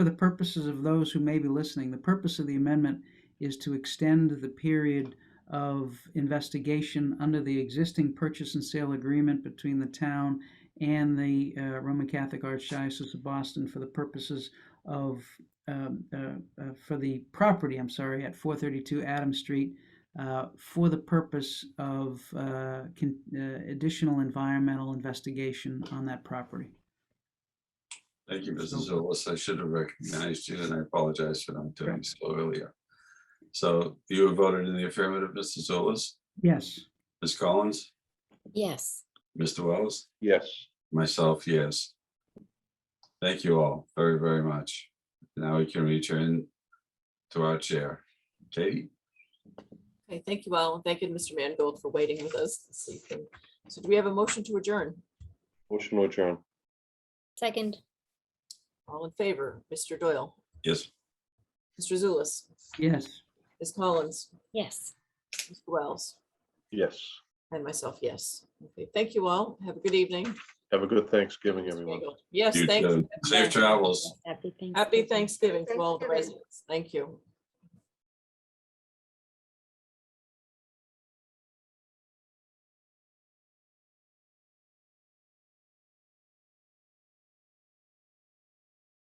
For the purposes of those who may be listening, the purpose of the amendment is to extend the period of investigation under the existing purchase and sale agreement between the town and the uh, Roman Catholic Archdiocese of Boston for the purposes of, um, uh, uh, for the property, I'm sorry, at 432 Adam Street, uh, for the purpose of uh, con- uh, additional environmental investigation on that property. Thank you, Mrs. Zulus. I should have recognized you and I apologize for not doing so earlier. So you have voted in the affirmative, Mrs. Zulus, Yes, Ms. Collins, Yes, Mr. Wells, yes, myself, yes. Thank you all very, very much. Now we can return to our chair. Katie? Okay, thank you all. and Thank you, to Mr. Mangold, for waiting with us this evening. So do we have a motion to adjourn? motion to adjourn, second, All in favor, Mr. Doyle, Yes, Mr. Zulus, yes. Ms. Collins, yes. Mr. Wells, yes. and myself, yes. Okay, thank you all. Have a good evening. Have a good Thanksgiving, everyone. Yes, you thanks. too. Safe travels. Happy Thanksgiving. Happy Thanksgiving to all the Thanksgiving. residents. Thank you.